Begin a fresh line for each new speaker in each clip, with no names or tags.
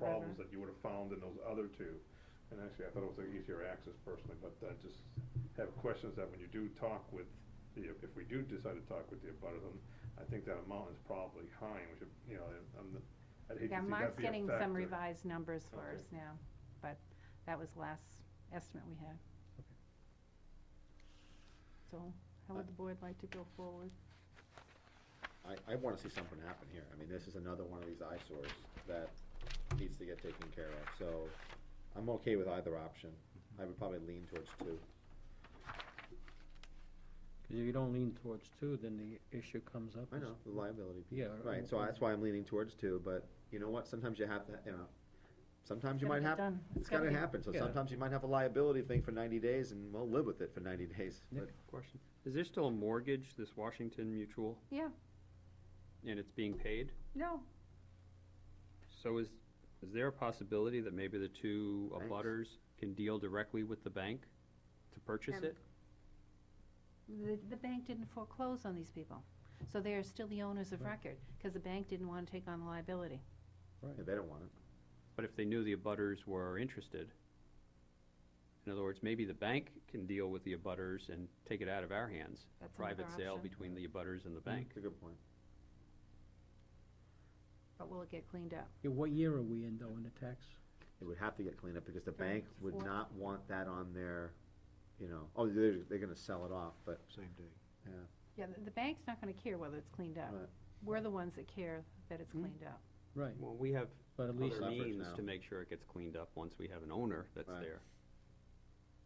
things
Uh-huh.
that you would have found in those other two. And actually, I thought it was an easier access personally, but I just have questions that when you do talk with, the if we do decide to talk with the abutters, um, I think that amount is probably high, and we should, you know, I'm, I'd hate to see that be a
Yeah, Mark's getting some
factor.
revised numbers for
Okay.
us now, but that was last estimate we had. So how
Uh,
would the board like to go forward?
I, I wanna see something happen here. I mean, this is another one of these eyesores that needs to get taken care of, so I'm okay with either option.
Mm-hmm.
I would probably lean towards two.
Cause if you don't lean towards two, then the issue comes up.
I
as-
know, the liability. piece.
Yeah.
Right, so that's why I'm leaning towards two, but you know what? Sometimes you have to, you know, sometimes you might have, it's gotta happen, so
Yeah.
sometimes you might have a liability thing for ninety days and we'll live with it for ninety days.
Nick?
But
Question, is there still a mortgage, this Washington Mutual,
Yeah,
and it's being paid?
no,
So is, is there a possibility that maybe the two
Banks.
abutters can deal directly with the bank to purchase
Um,
it?
the, the bank didn't foreclose on these people. So they are still the owners of
Right.
record, because the bank didn't want to take on the liability.
yeah, they don't want it.
But if they knew the abutters were interested, in other words, maybe the bank can deal with the abutters and take it out of our hands, a
That's another
private sale
option.
between the abutters and the
Mm.
bank.
It's a good point.
But will it get cleaned up?
Yeah, what year are we in though in the tax?
It would have to get cleaned up because the
Mm,
bank would
four.
not want that on their, you know, oh, they're, they're gonna sell it off, but,
Same day.
yeah.
Yeah, the, the bank's not gonna care whether it's cleaned up.
Right.
We're the ones that care that it's
Hmm?
cleaned up.
Right,
Well, we have
but at least,
other
Leverage
means
now.
to make sure it gets cleaned up once we have an owner that's
Right.
there.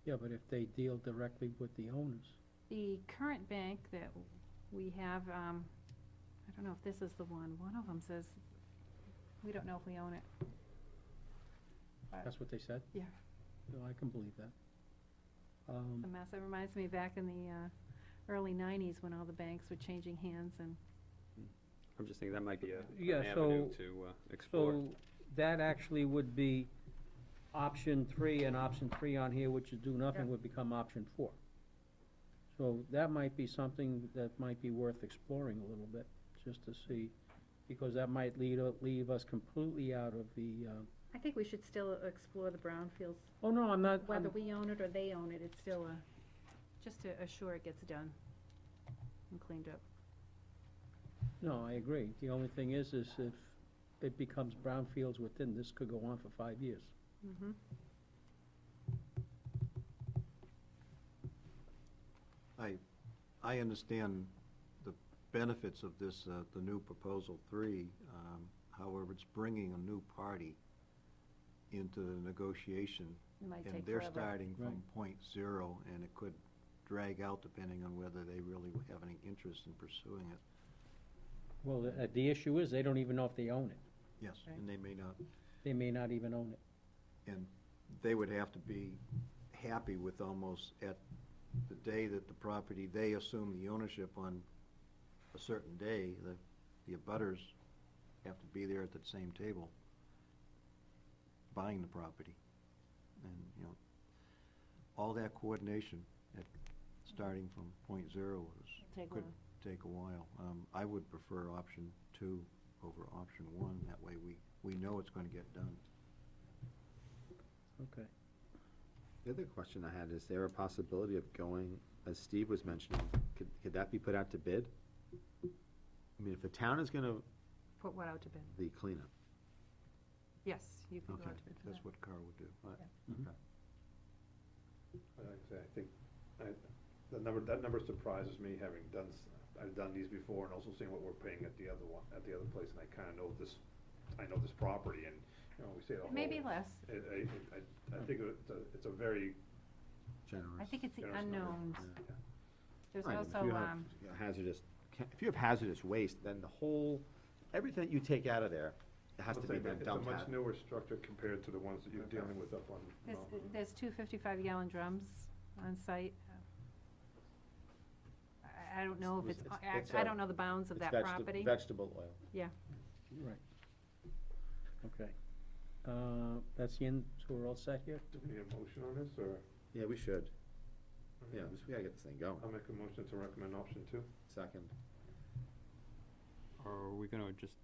yeah, but if they deal directly with the owners.
The current bank that we have, um, I don't know if this is the one, one of them says, we don't know if we own it. But
That's what they said?
Yeah.
No, I can believe that. Um,
The mess, it reminds me back in the, uh, early nineties when all the banks were changing hands and,
I'm just thinking that might be a,
Yeah,
an avenue
so-
to uh, explore.
so that actually would be option three, and option three on here, which is do nothing, would become option four. So that might be something that might be worth exploring a little bit, just to see, because that might lead, leave us completely out of the, uh,
I think we should still explore the brownfields,
oh, no, I'm not,
whether
I'm-
we own it or they own it, it's still a, Um, just to assure it gets done and cleaned up.
no, I agree. The only thing is, is if it becomes brownfields within, this could go on for five years.
Mm-hmm.
I, I understand the benefits of this, uh, the new proposal three. um, However, it's bringing a new party into the negotiation.
It might
And
take
they're
forever.
starting from
Right.
point zero, and it could drag out depending on whether they really have any interest in pursuing it.
Well, the, uh, the issue is, they don't even know if they own it.
Yes,
Right.
and they may not.
They may not even own it.
And they would have to be happy with almost at the day that the property, they assume the ownership on a certain day, the, the abutters have to be there at that same table buying the property. And, you know, all that coordination at, starting from point zero is,
Take
could
one.
take a while. Um, I would prefer option two over option one. That way we, we know it's gonna get done.
Okay.
The other question I had, is there a possibility of going, as Steve was mentioning, could, could that be put out to bid? I mean, if the town is gonna,
Put what out to bid?
the cleanup,
Yes, you can go
Okay,
out to bid for that.
That's what Carl would do.
Like I say, I think, I, that number, that number surprises me, having done, s- I've done these before and also seeing what we're paying at the other one, at the other place, and I kinda know this, I know this property, and, you know, we say the whole.
Maybe less.
I, I, I, I think it's a, it's a very,
generous.
I think it's the
There's no-
unknowns.
yeah.
There's
Right,
also, um,
If you have hazardous, ca- if you have hazardous waste, then the whole, everything you take out of there, it has to
Let's
be
say
then
that
dumped
It's
out.
a much newer structure compared to the ones that you're
Okay.
dealing with up on
there's,
Mountain.
there's two fifty-five gallon drums on site. I, I don't know if
It's-
it's,
it's-
I-
it's
I
a-
don't know the bounds of
It's
that
vegeta-
property.
Vegetable oil.
Right. Okay. Uh, That's the end, so we're all set here?
Do we need a motion on this, or?
Yeah, we should. Yeah, we s- we gotta get this thing going.
I'll make a motion to recommend option two.
Second.
Or are we gonna just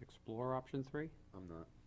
explore option three?
I'm not.